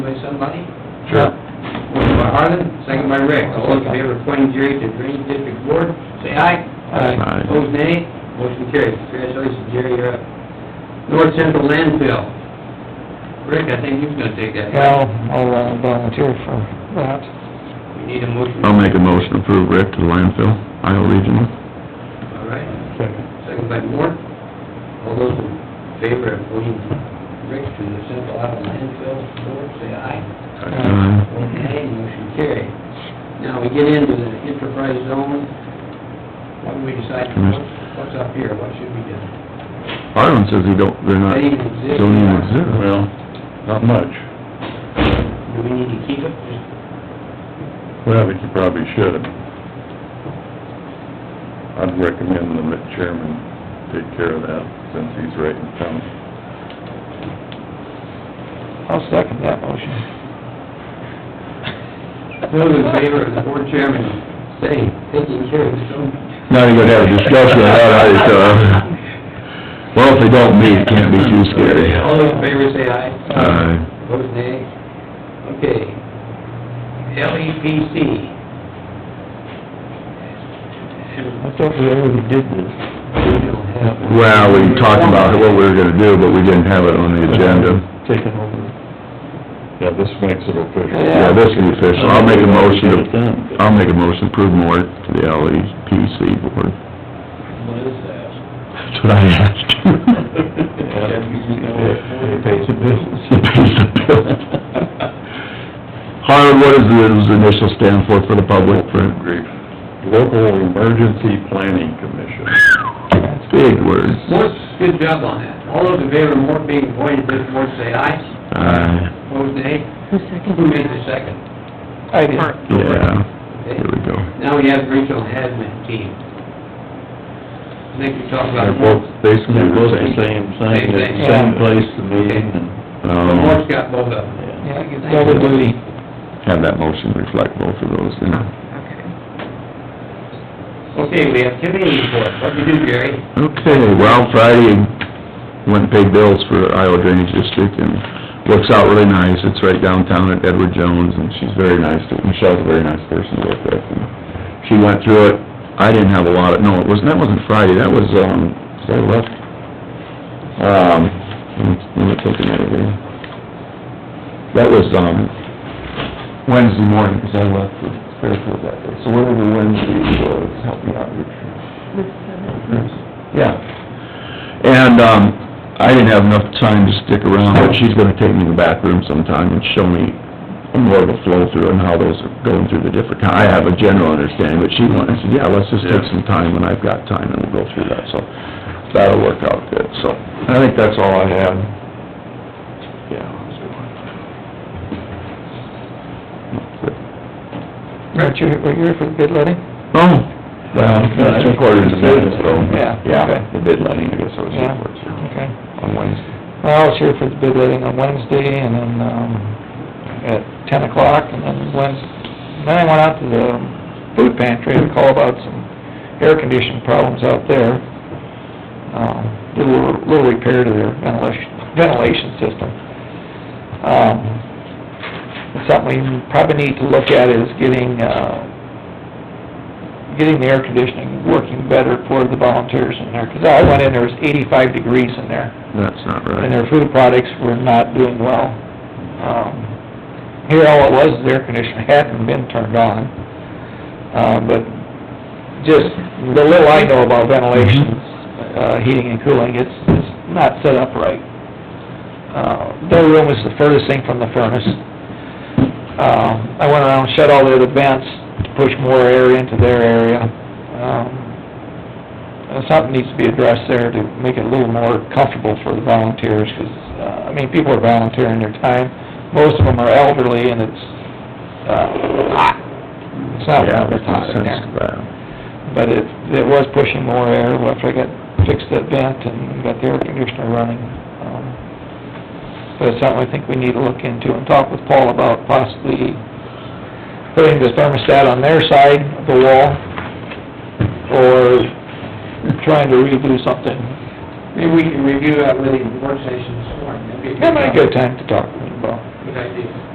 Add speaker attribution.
Speaker 1: somebody?
Speaker 2: Sure.
Speaker 1: Motion by Harland, second by Rick. All those in favor of appointing Jerry to Drainage District Board, say aye.
Speaker 2: Aye. Aye.
Speaker 1: Opposed, nay. Motion carries. Congratulations, Jerry, you're up. North Central Landfill. Rick, I think he's gonna take that.
Speaker 3: Well, I'll uh, volunteer for that.
Speaker 1: We need a motion.
Speaker 2: I'll make a motion to approve Rick to the landfill, Iowa Regional.
Speaker 1: All right. Second by Moore. All those in favor of appointing Rick to the Central Iowa Landfill Board, say aye.
Speaker 2: Aye.
Speaker 1: Okay, motion carried. Now, we get into the enterprise zone. What do we decide, what's, what's up here, what should we do?
Speaker 2: Harlan says they don't, they're not,
Speaker 1: They even exist.
Speaker 2: don't even exist. Well,
Speaker 4: Not much.
Speaker 1: Do we need to keep it? Just
Speaker 4: Well, I think you probably should. I'd recommend the chairman take care of that, since he's right in town.
Speaker 3: I'll second that motion.
Speaker 1: Those in favor of the board chairman, say, taking care of the zone.
Speaker 2: Now you're gonna have a discussion about how it's, uh, well, if they don't meet, it can't be too scary. Uh,
Speaker 1: All those in favor, say aye.
Speaker 2: Aye.
Speaker 1: Opposed, nay. Okay. E LEPC.
Speaker 3: I thought we already did this.
Speaker 1: We don't have one.
Speaker 2: Well, we talked about what we were gonna do, but we didn't have it on the agenda.
Speaker 3: Taken over.
Speaker 4: Yeah, this makes it official.
Speaker 2: Yeah, this can be official. I'll make a motion to, I'll make a motion to approve more to the LEPC
Speaker 1: What
Speaker 2: board.
Speaker 1: is that?
Speaker 2: That's what I asked.
Speaker 4: It pays the bills.
Speaker 2: He pays the bill. Harlan, what does the initial stand for, for the public, for?
Speaker 4: Grief. Local Emergency Planning Commission.
Speaker 2: Big words.
Speaker 1: Mort, good job on that. All those in favor of Mort being appointed to this board, say aye.
Speaker 2: Aye.
Speaker 1: Opposed, nay.
Speaker 5: Who seconded?
Speaker 1: Who made the second?
Speaker 3: I did.
Speaker 2: yeah,
Speaker 1: Okay.
Speaker 2: here we go.
Speaker 1: Now we have regional hazmat team. I think we talked about
Speaker 4: They're both
Speaker 1: Mort.
Speaker 4: basically
Speaker 6: They're both
Speaker 4: the
Speaker 6: the
Speaker 4: same.
Speaker 6: same thing,
Speaker 1: Same thing.
Speaker 6: the same place, the meeting, and,
Speaker 1: So
Speaker 2: Um,
Speaker 1: Mort's got both of them.
Speaker 6: yeah.
Speaker 3: Yeah, it's double duty.
Speaker 2: have that motion reflect both of those, then.
Speaker 1: Okay, we have committee report. What'd you do, Gary?
Speaker 2: Okay, well, Friday, went and paid bills for Iowa Drainage District, and looks out really nice. It's right downtown at Edward Jones, and she's very nice, to- Michelle's a very nice person to work with. and She went through it, I didn't have a lot of, no, it wasn't, that wasn't Friday, that was, um, was I left? Um, let me- let me take another one. That was, um, Wednesday morning, because I left for Fairfield that day. So whatever Wednesday was, help me out, Richard. Yeah. And, um, I didn't have enough time to stick around, but she's gonna take me in the back room sometime and show me more of a flow through and how those are going through the different, I have a general understanding, but she wanted, I said, yeah, let's just take some time when I've got time and we'll go through that, so that'll work out good, so. I think that's all I had. Yeah.
Speaker 3: Aren't you, were you here for the bid letting?
Speaker 2: Oh, well, that's two quarters of it, so.
Speaker 3: Uh, Yeah, okay.
Speaker 2: Yeah, the bid letting, I guess I was here for it, so,
Speaker 3: Okay.
Speaker 2: on Wednesday.
Speaker 3: Well, I was here for the bid letting on Wednesday, and then, um, at ten o'clock, and then Wednesday, then I went out to the food pantry to call about some air conditioning problems out there. Um, did a little, little repair to their ventilation, ventilation system. Um, something we probably need to look at is getting, uh, getting the air conditioning working better for the volunteers in there, 'cause I went in, there was eighty-five degrees in there
Speaker 2: That's not
Speaker 3: and
Speaker 2: right.
Speaker 3: their food products were not doing well. Um, Here, all it was, the air conditioner hadn't been turned on, uh, but just the little I know about ventilation, uh, heating and cooling, it's, it's not set up right. Uh, Their room is the furthest thing from the furnace. Um, I went around, shut all the other vents to push more air into their area. Um, uh, something needs to be addressed there to make it a little more comfortable for the volunteers, because, uh, I mean, people are volunteering their time. Most of them are elderly, and it's, uh, hot. It's not
Speaker 2: Yeah,
Speaker 3: warm,
Speaker 2: there's
Speaker 3: it's hot
Speaker 2: no
Speaker 3: in there.
Speaker 2: sense to that.
Speaker 3: But it, it was pushing more air after I got, fixed that vent and got the air conditioner running. Um, But it's something I think we need to look into and talk with Paul about possibly putting the thermostat on their side of the wall or trying to redo something.
Speaker 1: Maybe uh, we can review that with the work session this morning. That'd be
Speaker 3: That'd be a good time to talk to him about.
Speaker 1: Good idea.